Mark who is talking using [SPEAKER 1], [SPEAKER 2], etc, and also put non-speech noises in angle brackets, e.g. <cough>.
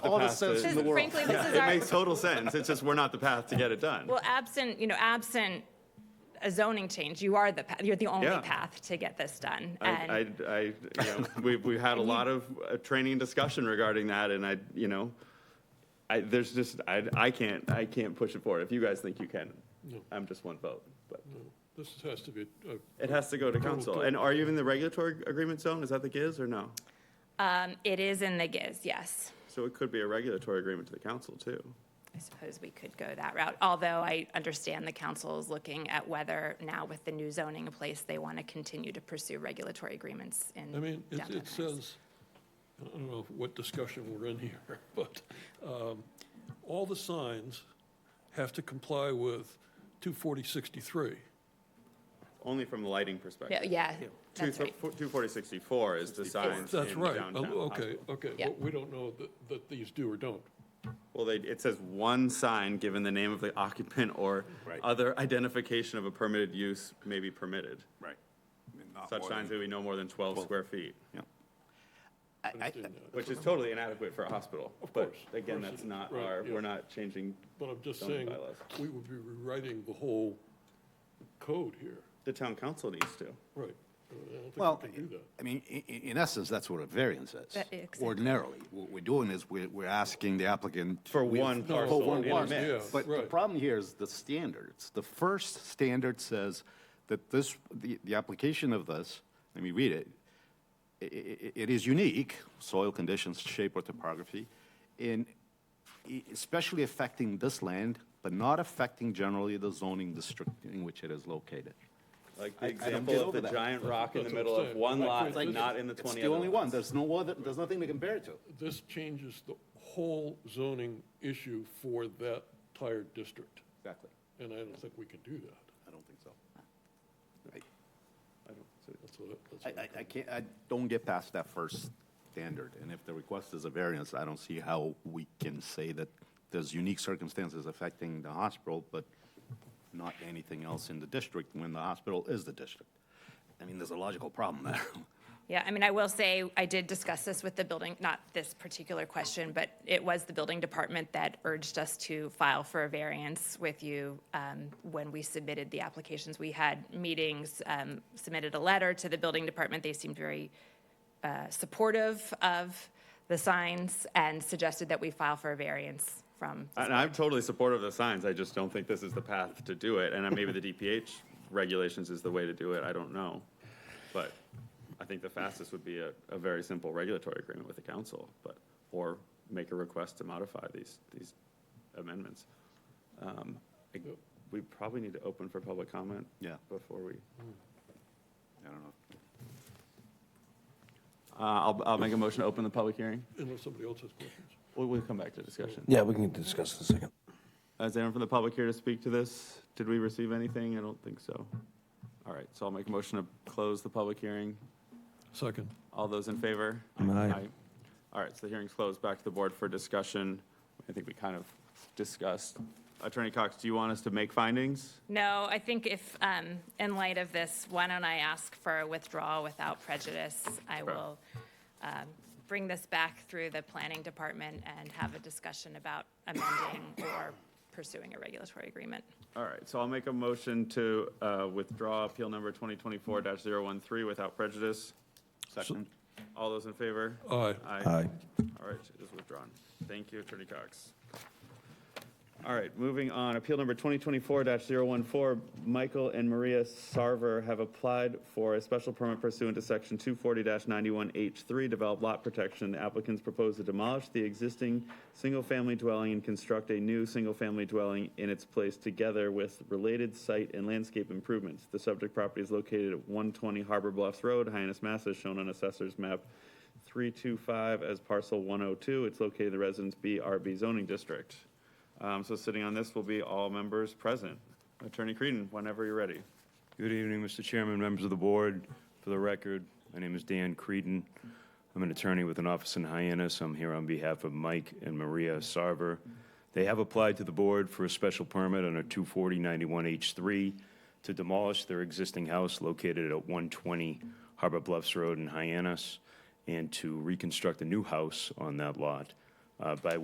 [SPEAKER 1] all the
[SPEAKER 2] past it
[SPEAKER 1] sense in
[SPEAKER 2] in
[SPEAKER 1] the
[SPEAKER 2] the
[SPEAKER 1] world.
[SPEAKER 3] Frankly, this is
[SPEAKER 2] It
[SPEAKER 3] our,
[SPEAKER 2] makes total sense. It's just we're not the path to get it done.
[SPEAKER 3] well, absent, you know, absent a zoning change, you are the, pa- you're the only
[SPEAKER 2] Yeah.
[SPEAKER 3] path to get this done. And-
[SPEAKER 2] I, I, I, you know, we've, we've had a lot of uh, training and discussion regarding that, and I, you know, I, there's just, I, I can't, I can't push it forward. If you guys think you can, I'm just one vote, but
[SPEAKER 4] This has to be, uh, a- a-
[SPEAKER 2] it has to go to council. And are you in the regulatory agreement zone? Is that the GIZ or no?
[SPEAKER 3] Um, it is in the GIZ, yes.
[SPEAKER 2] So it could be a regulatory agreement to the council too.
[SPEAKER 3] I suppose we could go that route, although I understand the council is looking at whether now with the new zoning in place, they want to continue to pursue regulatory agreements in
[SPEAKER 4] I mean, it,
[SPEAKER 3] downtown
[SPEAKER 4] it
[SPEAKER 3] Hyannis.
[SPEAKER 4] says, I don't know what discussion we're in here, <laughs> but um, all the signs have to comply with 24063.
[SPEAKER 2] Only from the lighting perspective.
[SPEAKER 3] Yeah, Yeah, that's right.
[SPEAKER 2] Two forty sixty-four is the signs
[SPEAKER 4] That's
[SPEAKER 2] in
[SPEAKER 4] right.
[SPEAKER 2] downtown
[SPEAKER 4] Oh, Okay,
[SPEAKER 2] Hospital.
[SPEAKER 4] okay.
[SPEAKER 3] Yeah.
[SPEAKER 4] Well, We don't know that, that these do or don't.
[SPEAKER 2] Well, they, it says one sign given the name of the occupant or other identification of a permitted use may be permitted.
[SPEAKER 5] Right. I mean, not
[SPEAKER 2] Such
[SPEAKER 5] more
[SPEAKER 2] signs
[SPEAKER 5] than-
[SPEAKER 2] may be no more than twelve square feet,
[SPEAKER 5] Yep.
[SPEAKER 4] Understand that.
[SPEAKER 2] which is totally inadequate for a hospital. Of
[SPEAKER 4] course, of
[SPEAKER 2] Again,
[SPEAKER 4] course
[SPEAKER 2] that's
[SPEAKER 4] it is.
[SPEAKER 2] not
[SPEAKER 4] Right,
[SPEAKER 2] our,
[SPEAKER 4] yeah.
[SPEAKER 2] we're not changing,
[SPEAKER 4] But I'm just
[SPEAKER 2] Zoning
[SPEAKER 4] saying,
[SPEAKER 2] bylaws.
[SPEAKER 4] we would be rewriting the whole code here.
[SPEAKER 2] the town council needs to.
[SPEAKER 4] Right. I don't
[SPEAKER 6] Well,
[SPEAKER 4] think we can do that.
[SPEAKER 6] I mean, i- i- in essence, that's what a variance is.
[SPEAKER 3] That- exactly.
[SPEAKER 6] Ordinarily, what we're doing is we're, we're asking the applicant.
[SPEAKER 2] For
[SPEAKER 6] we-
[SPEAKER 2] one
[SPEAKER 6] for
[SPEAKER 2] parcel
[SPEAKER 6] one
[SPEAKER 2] in a
[SPEAKER 6] parcel.
[SPEAKER 2] mix.
[SPEAKER 6] But the
[SPEAKER 4] Right.
[SPEAKER 6] problem here is the standards. The first standard says that this, the, the application of this, let me read it. I- i- i- it is unique, soil conditions, shape or topography, in e- especially affecting this land, but not affecting generally the zoning district in which it is located.
[SPEAKER 2] Like the
[SPEAKER 6] I- I don't
[SPEAKER 2] example
[SPEAKER 6] get
[SPEAKER 2] of
[SPEAKER 6] over
[SPEAKER 2] the
[SPEAKER 6] that.
[SPEAKER 2] giant rock in the
[SPEAKER 4] That's what
[SPEAKER 2] middle
[SPEAKER 4] I'm
[SPEAKER 2] of
[SPEAKER 4] saying.
[SPEAKER 2] one
[SPEAKER 4] Like,
[SPEAKER 2] lot,
[SPEAKER 4] it's like-
[SPEAKER 2] not in the
[SPEAKER 6] It's
[SPEAKER 2] twenty
[SPEAKER 6] the
[SPEAKER 2] other
[SPEAKER 6] only one,
[SPEAKER 2] ones.
[SPEAKER 6] there's no other, there's nothing to compare it to.
[SPEAKER 4] This changes the whole zoning issue for that entire district,
[SPEAKER 6] Exactly.
[SPEAKER 4] and I don't think we can do that.
[SPEAKER 6] I don't think so.
[SPEAKER 2] I don't- so-
[SPEAKER 4] That's what, I- that's
[SPEAKER 6] I,
[SPEAKER 4] what I-
[SPEAKER 6] I, I can't, I don't get past that first standard, and if the request is a variance, I don't see how we can say that there's unique circumstances affecting the hospital, but not anything else in the district when the hospital is the district. I mean, there's a logical problem there. <laughs>
[SPEAKER 3] Yeah, I mean, I will say, I did discuss this with the building, not this particular question, but it was the building department that urged us to file for a variance with you um, when we submitted the applications. We had meetings, um, submitted a letter to the building department. They seemed very uh, supportive of the signs and suggested that we file for a variance from,
[SPEAKER 2] And I'm totally supportive of the signs, I just don't think this is the path to do it, and uh, maybe the DPH regulations is the way to do it, I don't know. But I think the fastest would be a, a very simple regulatory agreement with the council, but, or make a request to modify these, these amendments. Um, I- We probably need to open for public comment.
[SPEAKER 6] Yeah.
[SPEAKER 2] Before we,
[SPEAKER 6] I don't know.
[SPEAKER 2] uh, I'll, I'll make a motion to open the public hearing,
[SPEAKER 4] unless somebody else has questions.
[SPEAKER 2] we'll, we'll come back to discussion.
[SPEAKER 7] Yeah, we can discuss in a second.
[SPEAKER 2] Is anyone from the public here to speak to this? Did we receive anything? I don't think so. All right, so I'll make a motion to close the public hearing.
[SPEAKER 4] Second.
[SPEAKER 2] All those in favor?
[SPEAKER 7] Aye.
[SPEAKER 2] All right, so the hearing's closed. Back to the board for discussion. I think we kind of discussed. Attorney Cox, do you want us to make findings?
[SPEAKER 3] no, I think if, um, in light of this, why don't I ask for a withdrawal without prejudice? I
[SPEAKER 2] Sure.
[SPEAKER 3] will um, bring this back through the planning department and have a discussion about amending or pursuing a regulatory agreement.
[SPEAKER 2] All right, so I'll make a motion to uh, withdraw appeal number 2024-013 without prejudice.
[SPEAKER 6] Second?
[SPEAKER 2] All those in favor?
[SPEAKER 4] Aye.
[SPEAKER 2] Aye. All right, it is withdrawn. Thank you, Attorney Cox. All right, moving on, appeal number 2024-014, Michael and Maria Sarver have applied for a special permit pursuant to section 240-91H3, develop lot protection. The Applicants propose to demolish the existing single-family dwelling and construct a new single-family dwelling in its place together with related site and landscape improvements. The subject property is located at 120 Harbor Bluffs Road, Hyannis, Mass, as shown on Assessor's Map 325 as parcel 102. It's located in the Residence B RB zoning district. Um, So sitting on this will be all members present. Attorney Creedon, whenever you're ready.
[SPEAKER 8] Good evening, Mr. Chairman, members of the board. For the record, my name is Dan Creedon. I'm an attorney with an office in Hyannis. I'm here on behalf of Mike and Maria Sarver. They have applied to the board for a special permit under 24091H3 to demolish their existing house located at 120 Harbor Bluffs Road in Hyannis and to reconstruct a new house on that lot uh, by